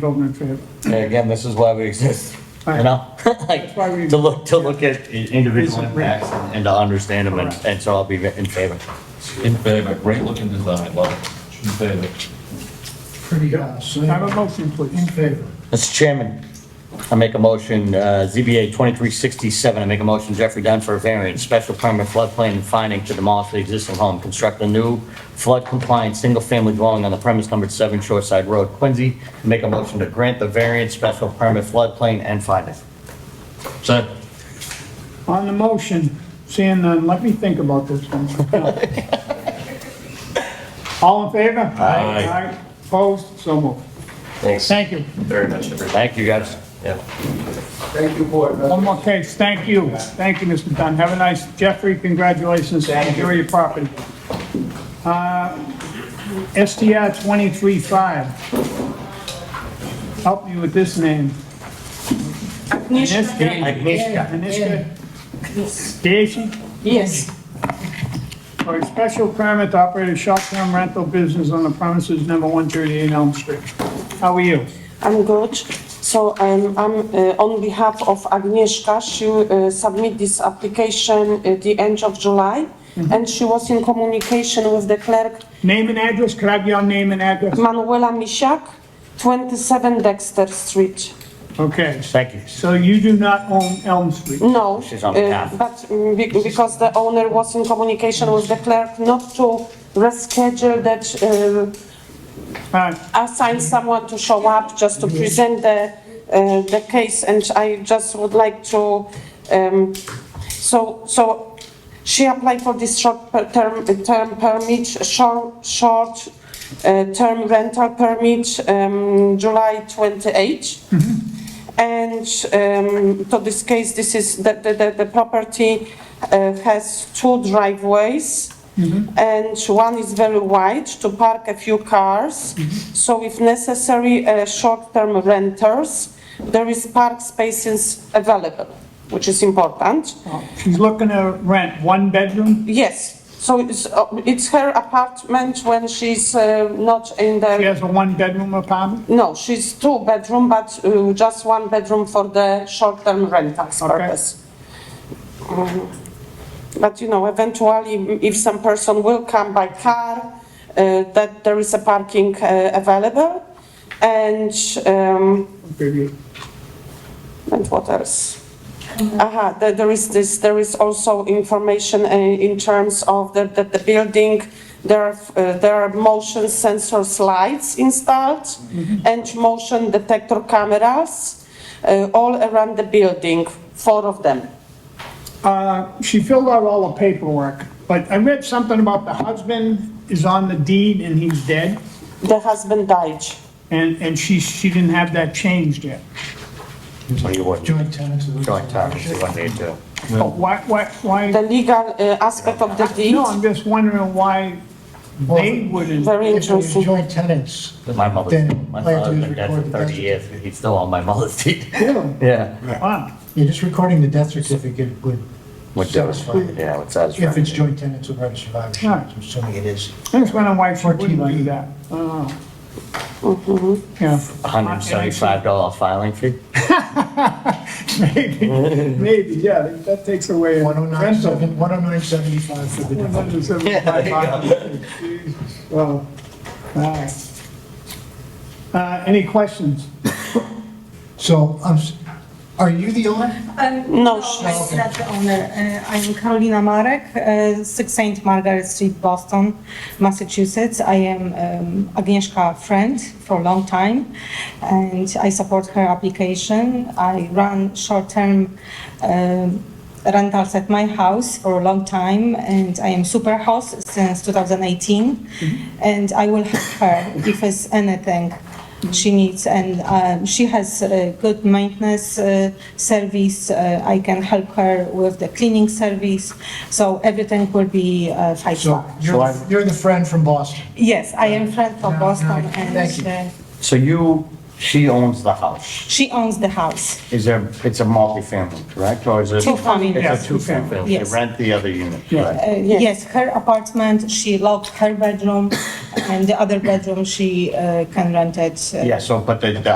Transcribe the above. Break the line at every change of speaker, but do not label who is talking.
voting in favor.
And again, this is why we exist, you know? Like,
That's why we-
to look, to look at i- individual impacts and and to understand them, and,
Correct.
and so I'll be in favor.
In favor, great looking design, love it. In favor.
Pretty house. eh?
Have a motion,
In
please.
favor.
Mr. Chairman, I make a motion, uh, ZBA 2367, I make a motion Jeffrey Dunn for a variance, special permit floodplain and finding to demolish the existing home, construct a new flood-compliant, single-family dwelling on the premise numbered 7 Shoreside Road, Quincy. Make a motion to grant the variance, special permit floodplain and finding.
Second.
On the motion, seeing none, let me think about this one. All in favor?
Aye.
Opposed? So moved.
Thanks.
Thank you.
Very much, everybody.
Thank you, guys.
Thank you, board members.
One more case. Thank you. Thank you, Mr. Dunn. Have a nice, Jeffrey, congratulations. Enjoy your property. Uh, STR 235. Help me with this name. Agnieszka.
Agnieszka.
Agnieszka Gacy?
Yes,
for a special permit to operate a short-term rental business on the premises number 138 Elm Street. How are you?
I'm good. So I'm, I'm uh, on behalf of Agnieszka. She uh, submit this application at the end of July,
Mhm.
and she was in communication with the clerk
Name and address, could I have your name and address?
Manuela Misiak, 27 Dexter Street.
Okay,
Thank you.
so you do not own Elm Street?
No,
She's on
uh,
behalf.
but mm, be- because the owner was in communication with the clerk not to reschedule that, uh,
Uh,
assign someone to show up just to present the, uh, the case, and I just would like to, um, so, so she applied for this short per- term, term permit, short, short, uh, term rental permit, um, July twenty-eight. And, um, to this case, this is, the, the, the, the property, uh, has two driveways. And one is very wide to park a few cars. So if necessary, uh, short-term renters, there is park spaces available, which is important.
She's looking to rent one bedroom?
Yes, so it's, uh, it's her apartment when she's, uh, not in
She
the,
has a one-bedroom apartment?
no, she's two-bedroom, but, uh, just one bedroom for the short-term rentals
Okay.
purpose. Mhm. But, you know, eventually, mm, if some person will come by car, uh, that there is a parking, uh, available. And, um,
Okay.
And what else? Aha, there, there is this, there is also information uh, in terms of the, that the building, there are, uh, there are motion sensor slides installed
Mm-hmm.
and motion detector cameras, uh, all around the building, four of them.
Uh, She filled out all the paperwork, but I read something about the husband is on the deed and he's dead,
The husband died.
and, and she, she didn't have that changed yet.
What do you want?
Joint tenants of the.
Joint terms, you want me to?
But why, why, why?
The legal uh, aspect of the deed,
No, I'm just wondering why they wouldn't.
very
If there's
interesting.
joint tenants,
My mother's,
Then
my
all you
father's
have to do
been
is
dead for
record the
thirty
death
years, he's still on my mother's deed.
Really?
Yeah.
Wow.
you're just recording the death certificate would
Would do it.
satisfy it.
Yeah, would satisfy.
If it's
me.
joint tenants without a survivorship,
Right.
I'm assuming it is.
I just wondering why she wouldn't do
14, like-
that. I don't know. Yeah,
hundred and seventy-five dollar filing fee?
maybe, maybe, yeah, that takes away.
109.7 109.75 for the default.
175. Well, all right. Uh, Any questions?
So, I'm, s- are you the owner?
Um,
No,
No,
she's-
I'm not the owner. Uh, I'm Karolina Marek, uh, 6 St. Margaret Street, Boston, Massachusetts. I am um, Agnieszka's friend for a long time, and I support her application. I run short-term um, rentals at my house for a long time, and I am super host since 2018, and I will help her if it's anything she needs, and um, she has a good maintenance uh, service. Uh, I can help her with the cleaning service, so everything will be uh, five
So,
star.
you're, the- you're the friend from Boston.
Yes, I am friend from
No, no,
Boston,
thank
and
you.
uh,
So you, she owns the house.
she owns the house.
Is there, it's a multifamily, correct, or is it?
Two family,
It's
yes,
a
two
two-family,
family.
they
Yes.
rent the other unit,
Yeah.
right?
Uh, yes, her apartment. She locked her bedroom, and the other bedroom she uh, can rent it. uh,
Yeah, so, but the, the